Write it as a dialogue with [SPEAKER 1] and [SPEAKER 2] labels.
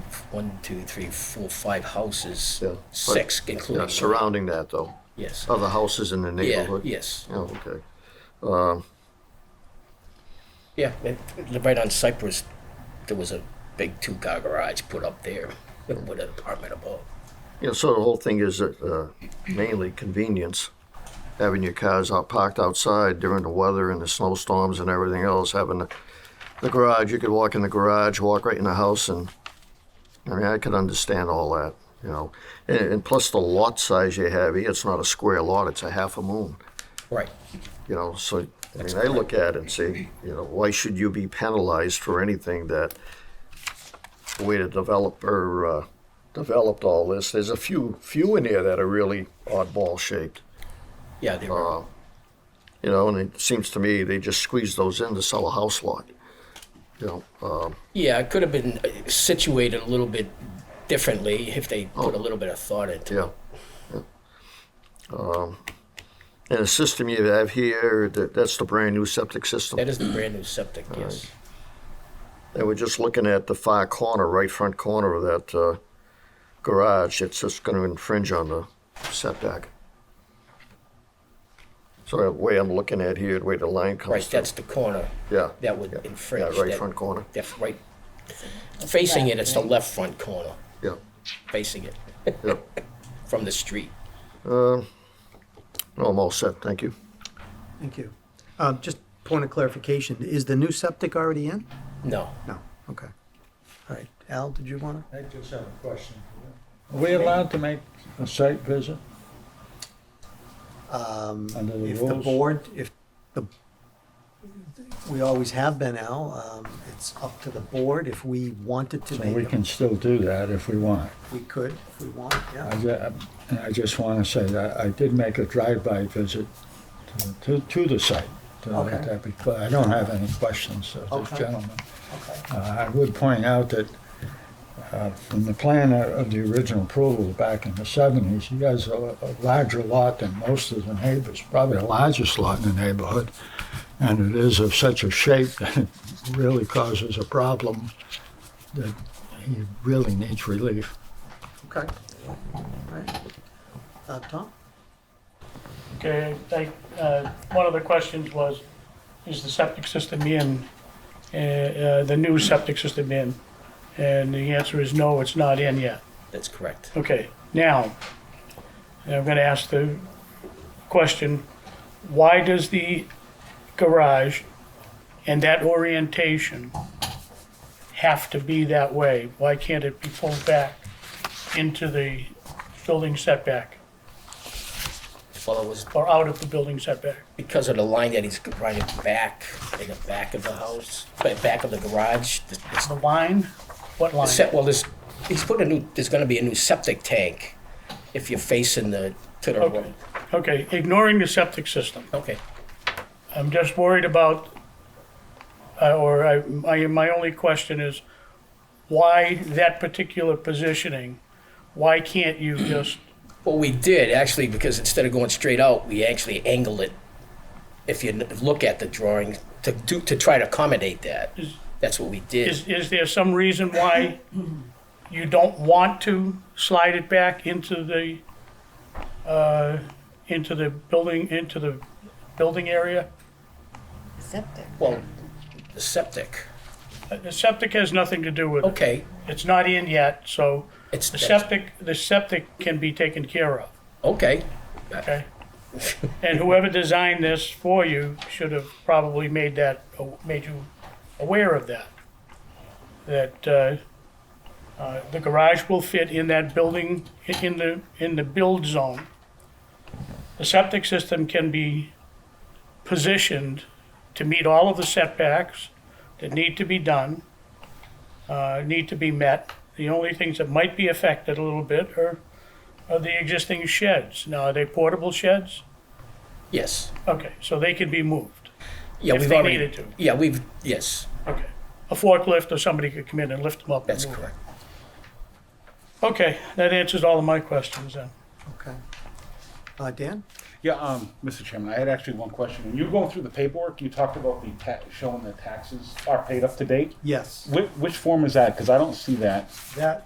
[SPEAKER 1] one, two, three, four, five houses,
[SPEAKER 2] Yeah.
[SPEAKER 1] six
[SPEAKER 2] Yeah,
[SPEAKER 1] including.
[SPEAKER 2] surrounding that though,
[SPEAKER 1] Yes.
[SPEAKER 2] other houses in the
[SPEAKER 1] Yeah,
[SPEAKER 2] neighborhood?
[SPEAKER 1] yes.
[SPEAKER 2] Oh, okay.
[SPEAKER 1] Yeah, and right on Cypress, there was a big two-car garage put up there with an apartment above.
[SPEAKER 2] Yeah, so the whole thing is that, uh, mainly convenience, having your cars out parked outside during the weather and the snowstorms and everything else, having the, the garage, you could walk in the garage, walk right in the house and, I mean, I could understand all that, you know. And, and plus the lot size you have, here, it's not a square lot, it's a half a moon.
[SPEAKER 1] Right.
[SPEAKER 2] You know, so, I mean, I look at it and say, you know, why should you be penalized for anything that, the way the developer, uh, developed all this, there's a few, few in here that are really oddball shaped.
[SPEAKER 1] Yeah, they were.
[SPEAKER 2] Uh, You know, and it seems to me they just squeeze those in to sell a house lot. You know, um,
[SPEAKER 1] Yeah, it could have been uh, situated a little bit differently if they
[SPEAKER 2] Oh.
[SPEAKER 1] put a little bit of thought into it.
[SPEAKER 2] yeah. yeah. Um, And the system you have here, that, that's the brand-new septic system.
[SPEAKER 1] That is the brand new septic, yes.
[SPEAKER 2] And we're just looking at the far corner, right front corner of that uh, garage. It's just going to infringe on the setback. So the way I'm looking at here, the way the line comes
[SPEAKER 1] Right,
[SPEAKER 2] through.
[SPEAKER 1] that's the corner.
[SPEAKER 2] Yeah.
[SPEAKER 1] That would
[SPEAKER 2] Yeah,
[SPEAKER 1] infringe.
[SPEAKER 2] right
[SPEAKER 1] that-
[SPEAKER 2] front corner.
[SPEAKER 1] That's right. Facing it, it's the left front corner,
[SPEAKER 2] Yeah,
[SPEAKER 1] facing it
[SPEAKER 2] yeah.
[SPEAKER 1] from the street.
[SPEAKER 2] No, I'm all set, thank you.
[SPEAKER 3] Thank you. Um, Just point of clarification, is the new septic already in?
[SPEAKER 1] No.
[SPEAKER 3] No, okay. All right, Al, did you want to?
[SPEAKER 4] I just have a question. Are we allowed to make a site visit? Under the
[SPEAKER 3] Um, If the
[SPEAKER 4] rules?
[SPEAKER 3] board, if the, we always have been, Al, um, it's up to the board if we wanted to
[SPEAKER 4] So we
[SPEAKER 3] make them.
[SPEAKER 4] can still do that if we want.
[SPEAKER 3] We could, if we want,
[SPEAKER 4] I,
[SPEAKER 3] yeah.
[SPEAKER 4] ju- and I just want to say that I did make a drive-by visit to, to, to the site. to let
[SPEAKER 3] Okay.
[SPEAKER 4] that be clear. I don't have any questions of this
[SPEAKER 3] Okay.
[SPEAKER 4] gentleman.
[SPEAKER 3] Okay.
[SPEAKER 4] Uh, I would point out that uh, from the plan of of the original approval back in the seventies, he has a a larger lot than most of the neighbors, probably the largest lot in the neighborhood. And it is of such a shape that it really causes a problem that he really needs relief.
[SPEAKER 3] Okay. All right. Uh, Tom?
[SPEAKER 5] Okay, I, uh, one of the questions was, is the septic system in, uh, uh, the new septic system in? And the answer is no, it's not in yet.
[SPEAKER 1] That's correct.
[SPEAKER 5] Okay, now, I'm gonna ask the question, why does the garage and that orientation have to be that way? Why can't it be pulled back into the building setback
[SPEAKER 1] Well, it was
[SPEAKER 5] or out of the building setback?
[SPEAKER 1] because of the line that he's running back in the back of the house, ba- back of the garage. the- it's-
[SPEAKER 5] The line? What
[SPEAKER 1] the
[SPEAKER 5] line?
[SPEAKER 1] set- Well, there's, he's putting a new, there's gonna be a new septic tank if you're facing the, to the
[SPEAKER 5] Okay,
[SPEAKER 1] road.
[SPEAKER 5] okay, ignoring the septic system.
[SPEAKER 1] Okay,
[SPEAKER 5] I'm just worried about, uh, or I, my, my only question is, why that particular positioning? Why can't you just,
[SPEAKER 1] well, we did actually, because instead of going straight out, we actually angled it. If you n- look at the drawing, to do, to try to accommodate that, that's what we did.
[SPEAKER 5] is, is there some reason why you don't want to slide it back into the, uh, into the building, into the building area?
[SPEAKER 6] Septic.
[SPEAKER 1] Well, the septic,
[SPEAKER 5] Uh, The septic has nothing to do with it.
[SPEAKER 1] okay,
[SPEAKER 5] It's not in yet, so
[SPEAKER 1] it's,
[SPEAKER 5] The
[SPEAKER 1] that's-
[SPEAKER 5] septic, the septic can be taken care of,
[SPEAKER 1] okay,
[SPEAKER 5] okay? And whoever designed this for you should have probably made that, made you aware of that. That, uh, uh, the garage will fit in that building, in the, in the build zone. The septic system can be positioned to meet all of the setbacks that need to be done, uh, need to be met. The only things that might be affected a little bit are, are the existing sheds. Now, are they portable sheds?
[SPEAKER 1] yes.
[SPEAKER 5] Okay, so they can be moved.
[SPEAKER 1] Yeah,
[SPEAKER 5] If
[SPEAKER 1] we've
[SPEAKER 5] they
[SPEAKER 1] already-
[SPEAKER 5] needed to.
[SPEAKER 1] Yeah, we've, yes,
[SPEAKER 5] Okay. A forklift or somebody could come in and lift them up. and
[SPEAKER 1] that's
[SPEAKER 5] move them.
[SPEAKER 1] correct.
[SPEAKER 5] Okay, that answers all of my questions then.
[SPEAKER 3] Okay. Uh, Dan?
[SPEAKER 7] Yeah, um, Mr. Chairman, I had actually one question. When you were going through the paperwork, you talked about the ta- showing that taxes are paid up to date.
[SPEAKER 3] Yes.
[SPEAKER 7] Which, which form is that? Because I don't see that.
[SPEAKER 3] That